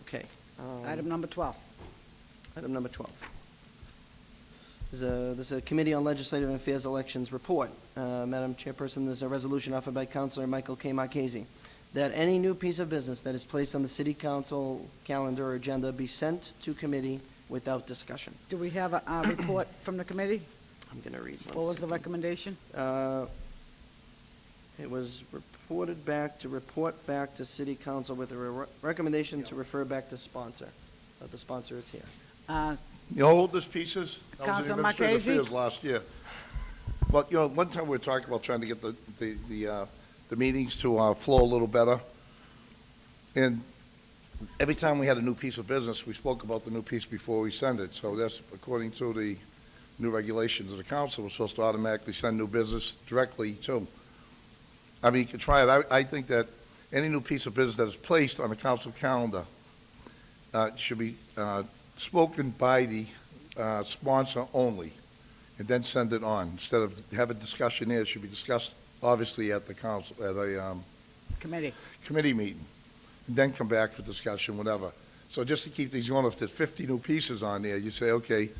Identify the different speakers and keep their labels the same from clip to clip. Speaker 1: Okay. um,
Speaker 2: Item number 12.
Speaker 1: Item number 12. There's a, there's a Committee on Legislative Affairs Elections report. Uh, Madam Chairperson, there's a resolution offered by Counselor Michael K. Marchese that any new piece of business that is placed on the city council calendar or agenda be sent to committee without discussion.
Speaker 2: Do we have a uh, report from the committee?
Speaker 1: I'm going to read one
Speaker 2: What was the
Speaker 1: second.
Speaker 2: recommendation?
Speaker 1: Uh, It was reported back to report back to city council with a re- recommendation to refer back to sponsor. Uh, The sponsor is here.
Speaker 2: Uh,
Speaker 3: You hold this pieces? That was in
Speaker 2: Councilor
Speaker 3: administrative
Speaker 2: Marchese?
Speaker 3: affairs Last year. But, you know, one time we were talking about trying to get the, the, the, uh, the meetings to, uh, flow a little better. And every time we had a new piece of business, we spoke about the new piece before we send it. So that's according to the new regulations of the council, we're supposed to automatically send new business directly to 'em. I mean, you could try it. I, I think that any new piece of business that is placed on the council calendar, uh, should be, uh, spoken by the uh, sponsor only, and then send it on. Instead of have a discussion here, it should be discussed, obviously, at the council, at a um,
Speaker 2: Committee,
Speaker 3: committee meeting, and then come back for discussion, whatever. So just to keep these going, if there's 50 new pieces on there, you say, okay,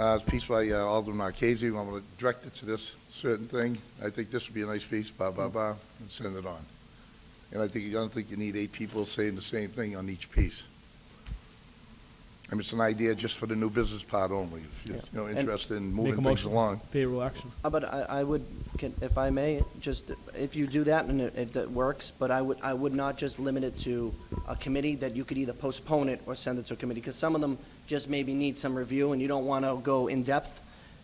Speaker 3: uh, it's a piece by uh, Alderman Marquez, I'm going to direct it to this certain thing. I think this would be a nice piece, blah,
Speaker 4: Mm-hmm.
Speaker 3: blah, blah, and send it on. And I think, I don't think you need eight people saying the same thing on each piece. I mean, it's an idea just for the new business part only, if you're, you know,
Speaker 1: And-
Speaker 3: interested in
Speaker 4: Make
Speaker 3: moving
Speaker 4: a
Speaker 3: things
Speaker 4: motion.
Speaker 3: along.
Speaker 4: Favorable action.
Speaker 1: Uh, But I, I would, can- if I may, just, if you do that and it- it, that works, but I would, I would not just limit it to a committee that you could either postpone it or send it to a committee, because some of them just maybe need some review and you don't want to go in-depth.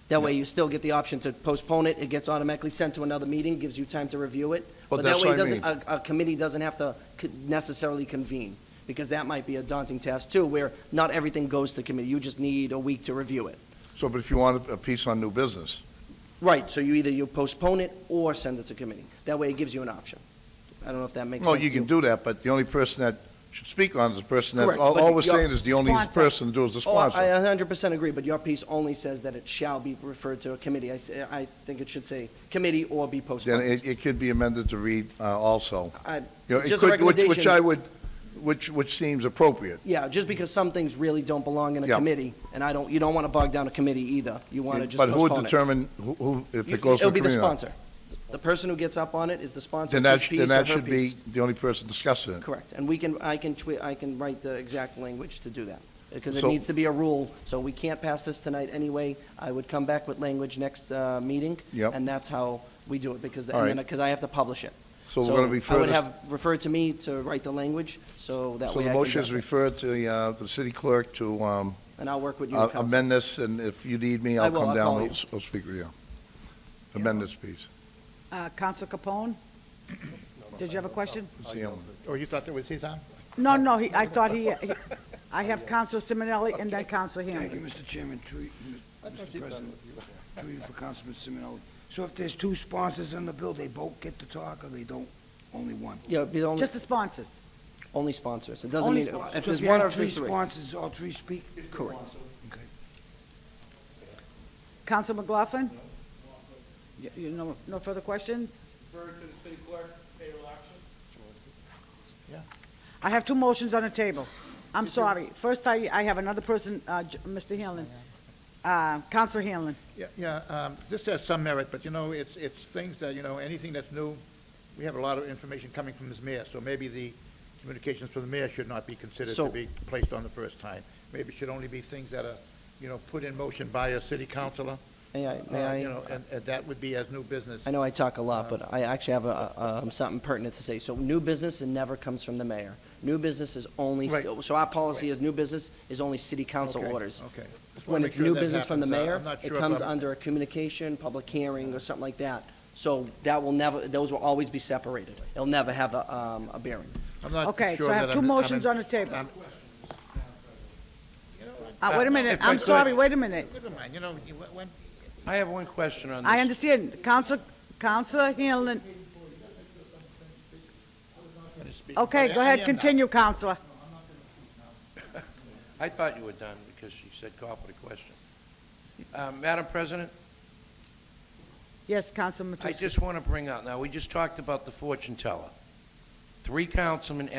Speaker 1: That way you still get the option to postpone it, it gets automatically sent to another meeting, gives you time to review it. But
Speaker 3: Well,
Speaker 1: that
Speaker 3: that's
Speaker 1: way it
Speaker 3: what I
Speaker 1: doesn't, a, a committee doesn't have to co- necessarily convene, because that might be a daunting task too, where not everything goes to committee, you just need a week to review it.
Speaker 3: So, but if you want a a piece on new business,
Speaker 1: Right, so you either you postpone it or send it to committee. That way it gives you an option. I don't know if that makes
Speaker 3: No,
Speaker 1: sense to
Speaker 3: you can do that, but the only person that should speak on it is the person that,
Speaker 1: Correct,
Speaker 3: all,
Speaker 1: but
Speaker 3: all we're
Speaker 1: you're-
Speaker 3: saying is the only
Speaker 2: Sponsor.
Speaker 3: person to do is the
Speaker 1: Oh, I
Speaker 3: sponsor.
Speaker 1: a hundred percent agree, but your piece only says that it shall be referred to a committee. I, s- I think it should say committee or be
Speaker 3: Then
Speaker 1: postponed.
Speaker 3: it, it could be amended to read, uh, also.
Speaker 1: I-
Speaker 3: You know, it
Speaker 1: Just a
Speaker 3: could- which- Which
Speaker 1: recommendation.
Speaker 3: I would, which, which seems appropriate.
Speaker 1: Yeah, just because some things really don't belong in a
Speaker 3: Yeah.
Speaker 1: committee, and I don't, you don't want to bog down a committee either. You want to just
Speaker 3: But who would
Speaker 1: postpone it.
Speaker 3: determine who, who, if
Speaker 1: You-
Speaker 3: it goes to
Speaker 1: It'll be
Speaker 3: committee
Speaker 1: the
Speaker 3: or not?
Speaker 1: sponsor. The person who gets up on it is the sponsor,
Speaker 3: Then
Speaker 1: it's
Speaker 3: that,
Speaker 1: his
Speaker 3: sh- then
Speaker 1: piece or
Speaker 3: that
Speaker 1: her
Speaker 3: should be
Speaker 1: piece.
Speaker 3: the only person discussing it.
Speaker 1: Correct, and we can, I can twi, I can write the exact language to do that, because it
Speaker 3: So-
Speaker 1: needs to be a rule, so we can't pass this tonight anyway. I would come back with language next, uh, meeting.
Speaker 3: Yep.
Speaker 1: And that's how we do it, because,
Speaker 3: All
Speaker 1: and then,
Speaker 3: right.
Speaker 1: because I have to publish it.
Speaker 3: So we're gonna
Speaker 1: I
Speaker 3: refer
Speaker 1: would
Speaker 3: this,
Speaker 1: have, referred to me to write the language, so that
Speaker 3: so
Speaker 1: way I
Speaker 3: the
Speaker 1: can.
Speaker 3: motion is
Speaker 1: draft it.
Speaker 3: referred to the, uh, the city clerk to, um,
Speaker 1: And I'll work with you,
Speaker 3: uh,
Speaker 1: counsel.
Speaker 3: amend this, and if you need me,
Speaker 1: I
Speaker 3: I'll
Speaker 1: will, I'll
Speaker 3: come down,
Speaker 1: call
Speaker 3: and
Speaker 1: you.
Speaker 3: I'll s- I'll speak with you. Amend this piece.
Speaker 2: Uh, Counsel Capone? Did you have a question?
Speaker 3: It's the only-
Speaker 5: Oh, you thought that was his on?
Speaker 2: No, no, he- I thought he, he- I have Counsel Simonelli and then Counsel
Speaker 6: Thank you,
Speaker 2: Hanlon.
Speaker 6: Mr. Chairman, through, you- Mr. President, through you for Councilman Simonelli. So if there's two sponsors on the bill, they both get to talk, or they don't, only one?
Speaker 1: Yeah, it'd be the only,
Speaker 2: Just the sponsors.
Speaker 1: only sponsors. It doesn't
Speaker 2: Only
Speaker 1: mean,
Speaker 2: sponsors.
Speaker 1: if
Speaker 6: So
Speaker 1: there's
Speaker 6: if you
Speaker 1: one or
Speaker 6: have
Speaker 1: if
Speaker 6: three
Speaker 1: there's three.
Speaker 6: sponsors, all three speak?
Speaker 1: Correct.
Speaker 6: Okay.
Speaker 2: Counsel McLaughlin? You- You know, no further questions? I have two motions on the table. I'm sorry. First, I, I have another person, uh, J- Mr. Hanlon. Uh, Counsel Hanlon.
Speaker 5: Yeah, yeah, um, this has some merit, but you know, it's, it's things that, you know, anything that's new, we have a lot of information coming from this mayor, so maybe the communications from the mayor should not be considered
Speaker 1: So-
Speaker 5: to be placed on the first time. Maybe it should only be things that are, you know, put in motion by a city councilor.
Speaker 1: May I, may
Speaker 5: uh,
Speaker 1: I?
Speaker 5: You know, and, and that would be as new business.
Speaker 1: I know I talk a lot, but I actually have a- a, um, something pertinent to say. So new business and never comes from the mayor. New business is only,
Speaker 5: Right.
Speaker 1: so our policy is new business is only city council
Speaker 5: Okay,
Speaker 1: orders.
Speaker 5: okay. Just wanna
Speaker 1: When
Speaker 5: make
Speaker 1: it's
Speaker 5: sure
Speaker 1: new
Speaker 5: that
Speaker 1: business from the
Speaker 5: happens. Uh,
Speaker 1: mayor,
Speaker 5: I'm not
Speaker 1: it
Speaker 5: sure if
Speaker 1: comes
Speaker 5: I'm-
Speaker 1: under a communication, public hearing, or something like that. So that will never, those will always be separated. It'll never have a, um, a bearing.
Speaker 5: I'm not
Speaker 2: Okay, so
Speaker 5: sure
Speaker 2: I have
Speaker 5: that
Speaker 2: two
Speaker 5: I'm- I'm
Speaker 2: motions
Speaker 5: in-
Speaker 2: on the table.
Speaker 5: I'm-
Speaker 2: Uh, wait a minute.
Speaker 5: If I
Speaker 2: I'm
Speaker 5: could-
Speaker 2: sorry, wait a minute.
Speaker 5: Never mind, you know, you- when,
Speaker 7: I have one question on this.
Speaker 2: I understand. Counsel, Counsel Hanlon. Okay,
Speaker 5: I-
Speaker 2: go
Speaker 5: I
Speaker 2: ahead,
Speaker 5: am now.
Speaker 2: continue, Counselor.
Speaker 7: I thought you were done because you said call for the question. Uh, Madam President,
Speaker 2: Yes, Counsel
Speaker 7: I
Speaker 2: Matusky.
Speaker 7: just want to bring out, now, we just talked about the fortune teller. Three councilmen